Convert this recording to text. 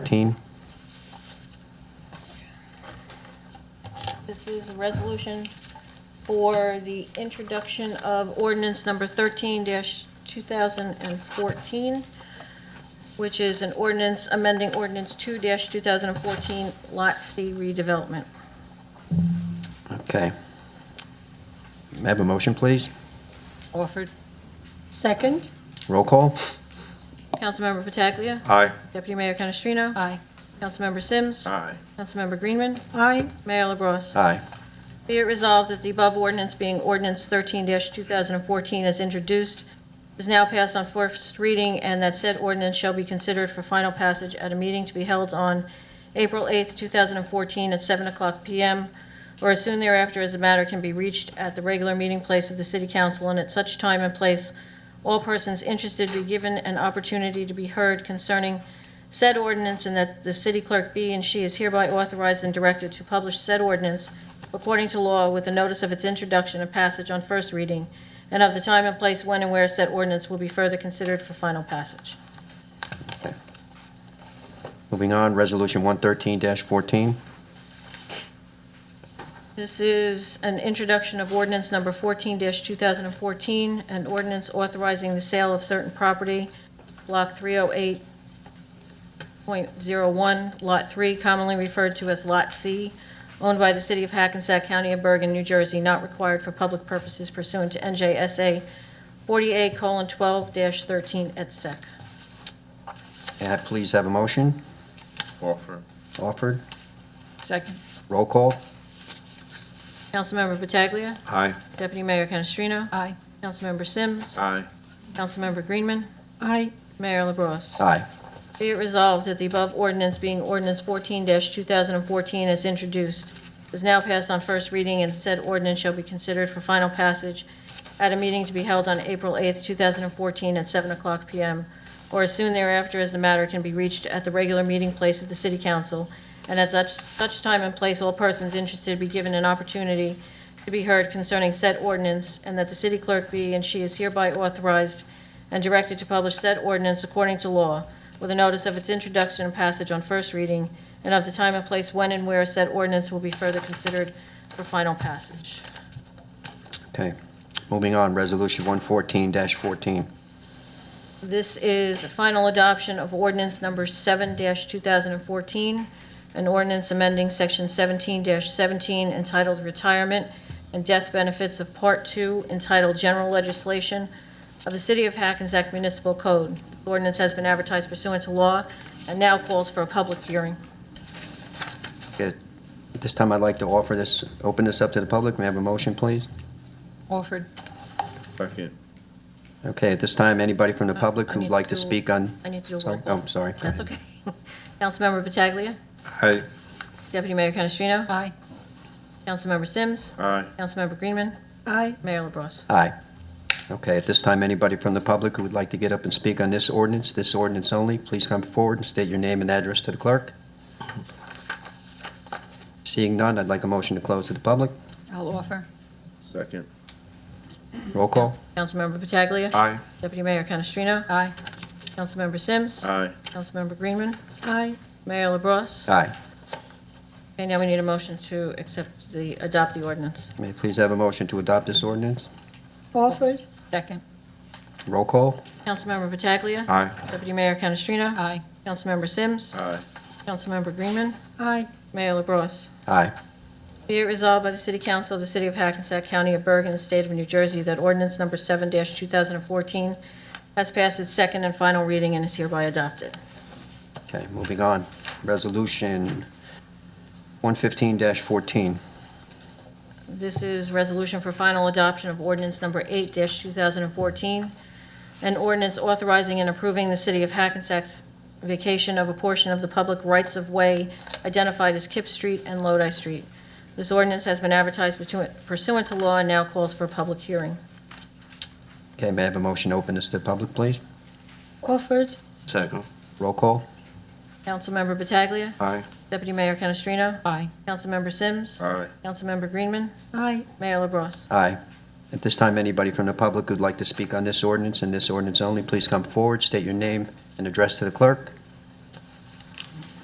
13. This is a resolution for the introduction of ordinance number 13-2014, which is an ordinance amending ordinance 2-2014 Lot C redevelopment. Okay. May I have a motion, please? Orford. Second? Roll call? Councilmember Pataglia. Aye. Deputy Mayor Canestrino. Aye. Councilmember Sims. Aye. Councilmember Greenman. Aye. Mayor LaBrus. Aye. Be it resolved that the above ordinance being ordinance 13-2014 as introduced is now passed on first reading and that said ordinance shall be considered for final passage at a meeting to be held on April 8th, 2014 at 7 o'clock PM or as soon thereafter as the matter can be reached at the regular meeting place of the city council and at such time and place all persons interested be given an opportunity to be heard concerning said ordinance and that the city clerk be and she is hereby authorized and directed to publish said ordinance according to law with a notice of its introduction and passage on first reading, and of the time and place when and where said ordinance will be further considered for final passage. Okay. Moving on, Resolution 113-14. This is an introduction of ordinance number 14-2014, an ordinance authorizing the sale of certain property, Block 308.01, Lot 3, commonly referred to as Lot C, owned by the city of Hackensack County of Bergen, New Jersey, not required for public purposes pursuant to NJSA 48:12-13 et sec. May I please have a motion Orford. offered? Second? Roll call? Councilmember Pataglia. Aye. Deputy Mayor Canestrino. Aye. Councilmember Sims. Aye. Councilmember Greenman. Aye. Mayor LaBrus. Aye. Be it resolved that the above ordinance being ordinance 14-2014 as introduced is now passed on first reading and said ordinance shall be considered for final passage at a meeting to be held on April 8th, 2014 at 7 o'clock PM or as soon thereafter as the matter can be reached at the regular meeting place of the city council and at such, such time and place all persons interested be given an opportunity to be heard concerning said ordinance and that the city clerk be and she is hereby authorized and directed to publish said ordinance according to law with a notice of its introduction and passage on first reading, and of the time and place when and where said ordinance will be further considered for final passage. Okay. Moving on, Resolution 114-14. This is final adoption of ordinance number 7-2014, an ordinance amending Section 17-17 entitled Retirement and Death Benefits of Part 2 entitled General Legislation of the City of Hackensack Municipal Code. The Ordinance has been advertised pursuant to law and now calls for a public hearing. Okay. At this time, I'd like to offer this, open this up to the public. May I have a motion, please? Orford? Uh, Second. Okay, at this time, anybody from the public Uh, I who'd need like to to- speak on? I need to do a roll Sorry. call. Oh, sorry. That's okay. Councilmember Pataglia. Aye. Deputy Mayor Canestrino. Aye. Councilmember Sims. Aye. Councilmember Greenman. Aye. Mayor LaBrus. Aye. Okay, at this time, anybody from the public who would like to get up and speak on this ordinance, this ordinance only, please come forward and state your name and address to the clerk. Seeing none, I'd like a motion to close to the public. I'll offer. Second. Roll call? Councilmember Pataglia. Aye. Deputy Mayor Canestrino. Aye. Councilmember Sims. Aye. Councilmember Greenman. Aye. Mayor LaBrus. Aye. Okay, now we need a motion to accept the, adopt the ordinance. May I please have a motion to adopt this ordinance? Orford? Second? Roll call? Councilmember Pataglia. Aye. Deputy Mayor Canestrino. Aye. Councilmember Sims. Aye. Councilmember Greenman. Aye. Mayor LaBrus. Aye. Be it resolved by the City Council of the City of Hackensack County of Bergen, and State of New Jersey, that ordinance number 7-2014 has passed its second and final reading and is hereby adopted. Okay, moving on. Resolution 115-14. This is resolution for final adoption of ordinance number 8-2014, an ordinance authorizing and approving the City of Hackensack's vacation of a portion of the public rights-of-way identified as Kip Street and Lodi Street. This ordinance has been advertised pursuant- pursuant to law and now calls for a public hearing. Okay, may I have a motion to open this to the public, please? Orford? Second. Roll call? Councilmember Pataglia. Aye. Deputy Mayor Canestrino. Aye. Councilmember Sims. Aye. Councilmember Greenman. Aye. Mayor LaBrus. Aye. At this time, anybody from the public who'd like to speak on this ordinance and this ordinance only, please come forward, state your name and address to the clerk.